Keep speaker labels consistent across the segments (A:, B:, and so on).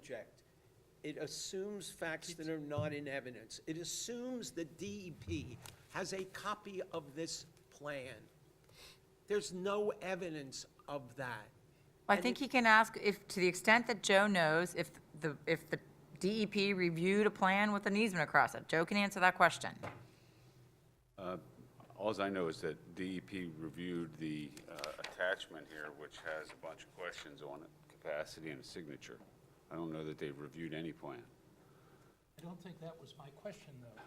A: project, it assumes facts that are not in evidence. It assumes the DEP has a copy of this plan. There's no evidence of that.
B: I think he can ask if, to the extent that Joe knows, if the, if the DEP reviewed a plan with an easement across it. Joe can answer that question.
C: Alls I know is that DEP reviewed the uh, attachment here, which has a bunch of questions on it, capacity and signature. I don't know that they've reviewed any plan.
D: I don't think that was my question, though.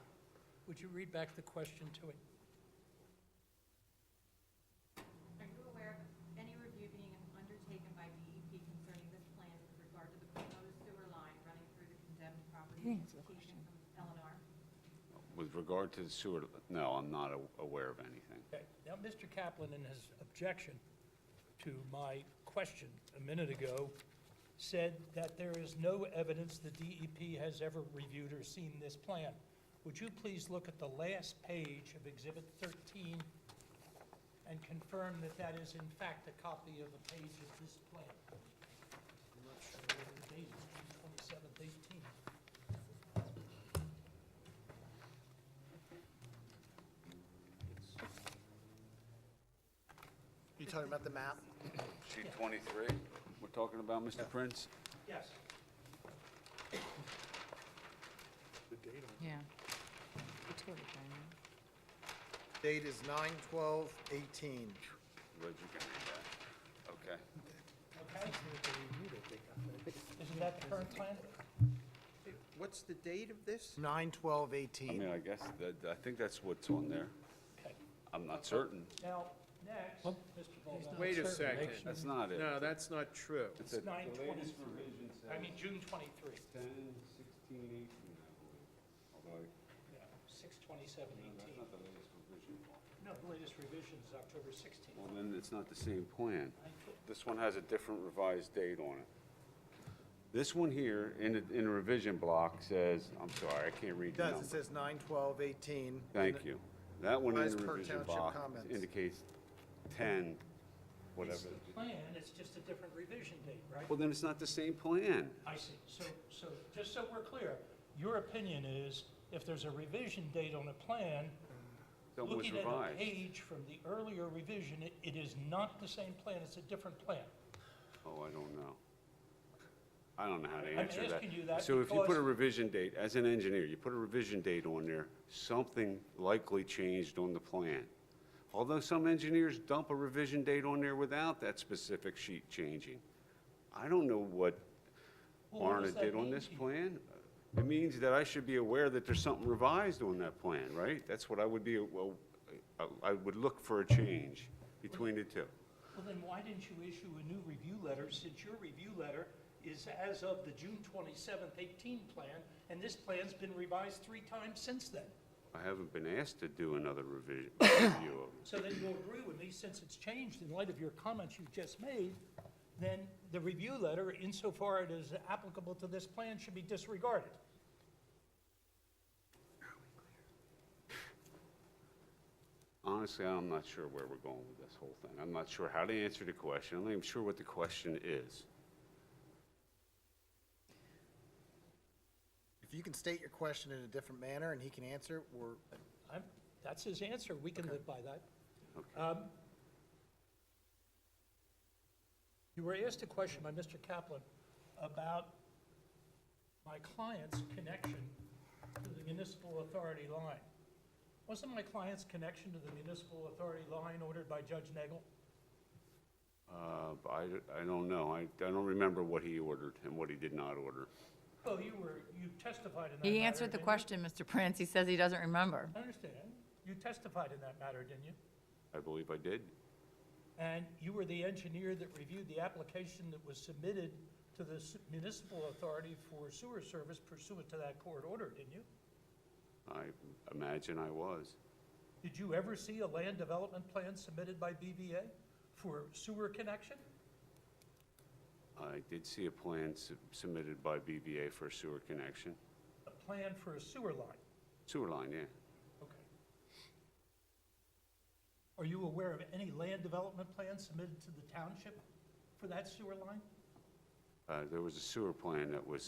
D: Would you read back the question to it?
E: Are you aware of any review being undertaken by DEP concerning this plan with regard to the proposed sewer line running through the condemned property location from Eleanor?
C: With regard to the sewer, no, I'm not a- aware of anything.
D: Okay, now, Mr. Kaplan, in his objection to my question a minute ago, said that there is no evidence the DEP has ever reviewed or seen this plan. Would you please look at the last page of Exhibit 13 and confirm that that is in fact a copy of a page of this plan? I'm not sure whether the date is June 27th, 18.
F: You talking about the map?
C: Sheet 23, we're talking about, Mr. Prince?
D: Yes.
B: Yeah.
F: Date is nine twelve eighteen.
C: Glad you can read that. Okay.
D: Okay? Isn't that the current plan?
A: What's the date of this?
F: Nine twelve
C: I
F: eighteen.
C: mean, I guess, that- I think that's what's on there.
D: Okay.
C: I'm not certain.
D: Now, next, Mr. Boland.
A: Oh. Wait a second.
C: That's not it.
A: No, that's not true.
C: It's a-
D: Nine
C: The latest
D: twenty-three.
C: revision says
D: I mean, June twenty-three,
C: 10, 16, 18, I believe. Although, I-
D: yeah, six twenty-seven
C: that's
D: eighteen.
C: not the latest revision.
D: No, the latest revision is October sixteenth.
C: Well, then it's not the same plan. This one has a different revised date on it. This one here, in, the- in the revision block, says, I'm sorry, I can't read
F: It
C: the
F: does,
C: number.
F: it says nine twelve eighteen.
C: Thank you. That one in
F: Revised
C: the
F: per
C: revision
F: township
C: block
F: comments.
C: indicates 10, whatever.
D: It's the plan, it's just a different revision date, right?
C: Well, then it's not the same plan.
D: I see, so, so, just so we're clear, your opinion is, if there's a revision date on a plan,
C: That was
D: looking at a
C: revised.
D: page from the earlier revision, it, it is not the same plan, it's a different plan.
C: Oh, I don't know. I don't know how to
D: I'm
C: answer that.
D: asking you that
C: So if you put
D: because-
C: a revision date, as an engineer, you put a revision date on there, something likely changed on the plan. Although some engineers dump a revision date on there without that specific sheet changing. I don't know what
D: Well, what
C: Arna
D: does that
C: did on
D: mean
C: this
D: to you?
C: plan. It means that I should be aware that there's something revised on that plan, right? That's what I would be, well, I- I would look for a change between the two.
D: Well, then why didn't you issue a new review letter, since your review letter is as of the June twenty-seventh, eighteen plan, and this plan's been revised three times since then?
C: I haven't been asked to do another revision, review of it.
D: So then you'll agree with me, since it's changed in light of your comments you just made, then the review letter, insofar it is applicable to this plan, should be disregarded.
C: Honestly, I'm not sure where we're going with this whole thing. I'm not sure how to answer the question. I'm not even sure what the question is.
F: If you can state your question in a different manner and he can answer, we're,
D: I'm, that's his answer, we can live by that. Um, You were asked a question by Mr. Kaplan about my client's connection to the municipal authority line. Wasn't my client's connection to the municipal authority line ordered by Judge Nagel?
C: Uh, but I, I don't know. I, I don't remember what he ordered and what he did not order.
D: Oh, you were, you testified in that
B: He
D: matter,
B: answered the
D: didn't you?
B: question, Mr. Prince. He says he doesn't remember.
D: I understand. You testified in that matter, didn't you?
C: I believe I did.
D: And you were the engineer that reviewed the application that was submitted to the s- municipal authority for sewer service pursuant to that court order, didn't you?
C: I imagine I was.
D: Did you ever see a land development plan submitted by BVA for sewer connection?
C: I did see a plan sub- submitted by BVA for a sewer connection.
D: A plan for a sewer line?
C: Sewer line, yeah.
D: Okay. Are you aware of any land development plan submitted to the township for that sewer line?
C: Uh, there was a sewer plan that was